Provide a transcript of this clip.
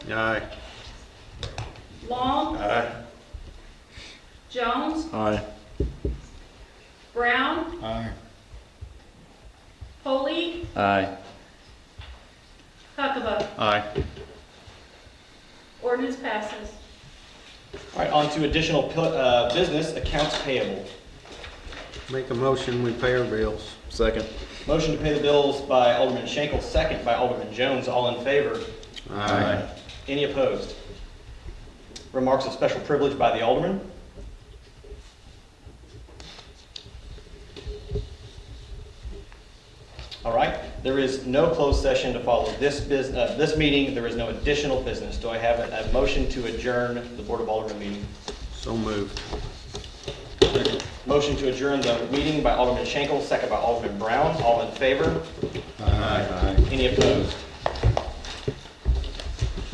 Aye. Long, Aye. Jones, Aye. Brown, Aye. Polley, Aye. Huckabee. Aye. Ordinance passes. All right, on to additional pu- uh, business, accounts payable. Make a motion, we pay our bills. Second. Motion to pay the bills by Alderman Schenkel, second by Alderman Jones, all in favor. Aye. Any opposed? Remarks of special privilege by the Alderman. All right, there is no closed session to follow this business, this meeting, there is no additional business. Do I have a a motion to adjourn the Board of Alderman meeting? So moved. Motion to adjourn the meeting by Alderman Schenkel, second by Alderman Brown. All in favor? Aye. Any opposed?